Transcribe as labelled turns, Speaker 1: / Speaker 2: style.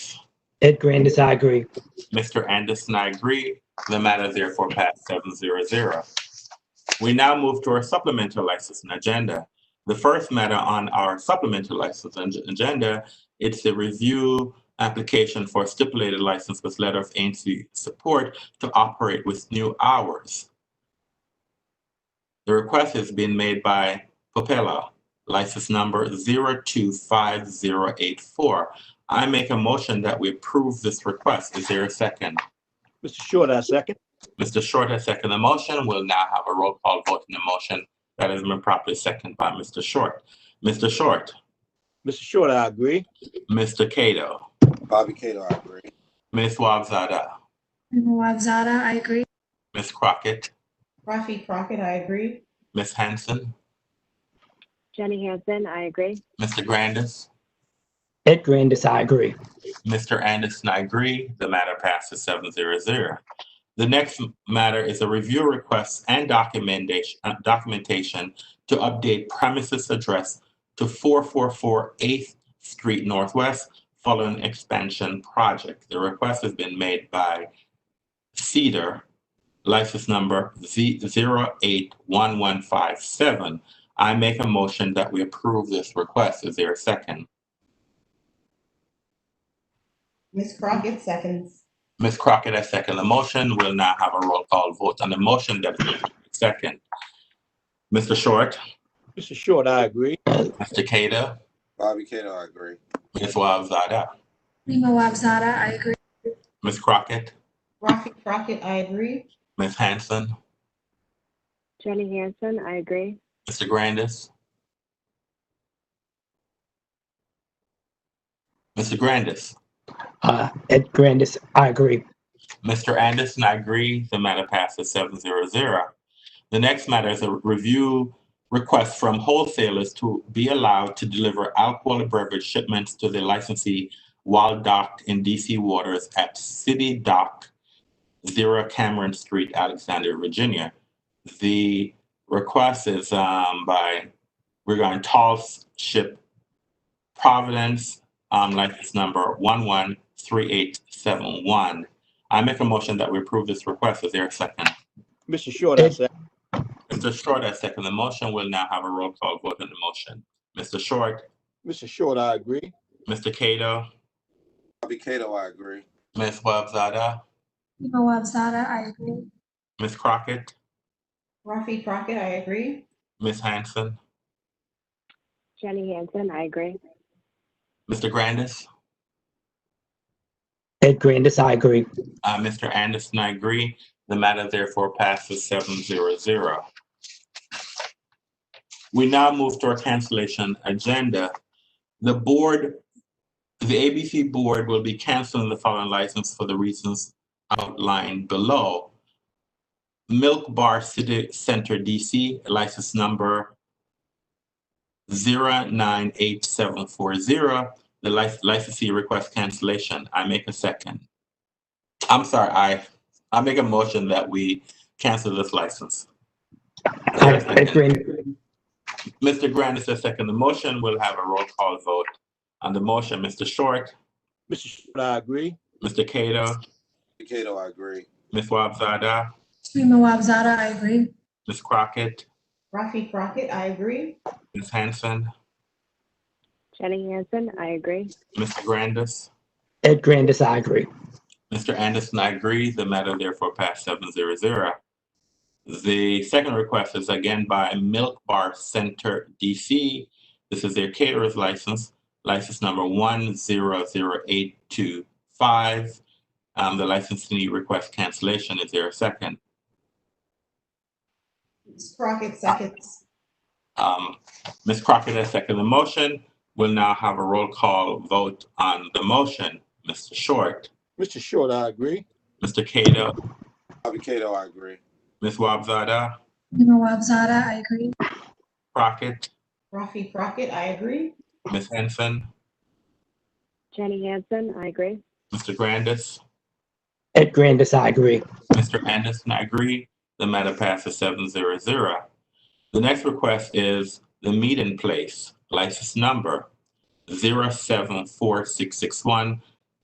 Speaker 1: Ed Grandis, I agree.
Speaker 2: Mr. Anderson, I agree. The matter therefore passed seven zero zero. We now move to our supplemental licensing agenda. The first matter on our supplemental licensing ag- agenda, it's the review application for stipulated license with letter of agency support to operate with new hours. The request has been made by Popella, license number zero two five zero eight four. I make a motion that we approve this request. Is there a second?
Speaker 3: Mr. Short, I second.
Speaker 2: Mr. Short has seconded the motion. We'll now have a roll call vote on the motion that has been properly seconded by Mr. Short. Mr. Short,
Speaker 3: Mr. Short, I agree.
Speaker 2: Mr. Cato,
Speaker 4: Bobby Cato, I agree.
Speaker 2: Ms. Wabzada,
Speaker 5: Nawab Zada, I agree.
Speaker 2: Ms. Crockett,
Speaker 6: Rafi Crockett, I agree.
Speaker 2: Ms. Hanson,
Speaker 7: Jenny Hansen, I agree.
Speaker 2: Mr. Grandis,
Speaker 1: Ed Grandis, I agree.
Speaker 2: Mr. Anderson, I agree. The matter passes seven zero zero. The next matter is a review request and documentation, uh, documentation to update premises address to four four four Eighth Street Northwest following expansion project. The request has been made by Cedar, license number Z zero eight one one five seven. I make a motion that we approve this request. Is there a second?
Speaker 6: Ms. Crockett seconds.
Speaker 2: Ms. Crockett has seconded the motion. We'll now have a roll call vote on the motion that is second. Mr. Short,
Speaker 3: Mr. Short, I agree.
Speaker 2: Mr. Kato,
Speaker 4: Bobby Cato, I agree.
Speaker 2: Ms. Wahab Zada,
Speaker 5: Nawab Zada, I agree.
Speaker 2: Ms. Crockett,
Speaker 6: Rafi Crockett, I agree.
Speaker 2: Ms. Hanson,
Speaker 7: Jenny Hansen, I agree.
Speaker 2: Mr. Grandis. Mr. Grandis,
Speaker 1: Uh, Ed Grandis, I agree.
Speaker 2: Mr. Anderson, I agree. The matter passes seven zero zero. The next matter is a review request from wholesalers to be allowed to deliver alcoholic beverage shipments to the licensee while docked in DC waters at City Dock, Zero Cameron Street, Alexandria, Virginia. The request is um, by regarding Tall Ship Providence, um, license number one one three eight seven one. I make a motion that we approve this request. Is there a second?
Speaker 3: Mr. Short, I second.
Speaker 2: Mr. Short, I second the motion. We'll now have a roll call vote on the motion. Mr. Short,
Speaker 3: Mr. Short, I agree.
Speaker 2: Mr. Cato,
Speaker 4: Bobby Cato, I agree.
Speaker 2: Ms. Wabzada,
Speaker 5: Nawab Zada, I agree.
Speaker 2: Ms. Crockett,
Speaker 6: Rafi Crockett, I agree.
Speaker 2: Ms. Hanson,
Speaker 7: Jenny Hansen, I agree.
Speaker 2: Mr. Grandis,
Speaker 1: Ed Grandis, I agree.
Speaker 2: uh, Mr. Anderson, I agree. The matter therefore passes seven zero zero. We now move to our cancellation agenda. The board, the ABC board will be canceling the following license for the reasons outlined below. Milk Bar City Center DC, license number 098740. The lic- licensee requests cancellation. I make a second. I'm sorry, I, I make a motion that we cancel this license.
Speaker 1: Uh, Ed Grandis,
Speaker 2: Mr. Grandis has seconded the motion. We'll have a roll call vote on the motion. Mr. Short,
Speaker 3: Mr. Short, I agree.
Speaker 2: Mr. Kato,
Speaker 4: Bobby Cato, I agree.
Speaker 2: Ms. Wabzada,
Speaker 5: Nawab Zada, I agree.
Speaker 2: Ms. Crockett,
Speaker 6: Rafi Crockett, I agree.
Speaker 2: Ms. Hanson,
Speaker 7: Jenny Hansen, I agree.
Speaker 2: Mr. Grandis.
Speaker 1: Ed Grandis, I agree.
Speaker 2: Mr. Anderson, I agree. The matter therefore passed seven zero zero. The second request is again by Milk Bar Center DC. This is their caterer's license, license number one zero zero eight two five. Um, the licensee requests cancellation. Is there a second?
Speaker 6: Ms. Crockett seconds.
Speaker 2: Um, Ms. Crockett has seconded the motion. We'll now have a roll call vote on the motion. Mr. Short,
Speaker 3: Mr. Short, I agree.
Speaker 2: Mr. Kato,
Speaker 4: Bobby Cato, I agree.
Speaker 2: Ms. Wabzada,
Speaker 5: Nawab Zada, I agree.
Speaker 2: Crockett,
Speaker 6: Rafi Crockett, I agree.
Speaker 2: Ms. Henson,
Speaker 7: Jenny Hansen, I agree.
Speaker 2: Mr. Grandis,
Speaker 1: Ed Grandis, I agree.
Speaker 2: Mr. Anderson, I agree. The matter passes seven zero zero. The next request is the meeting place, license number zero seven four six six one.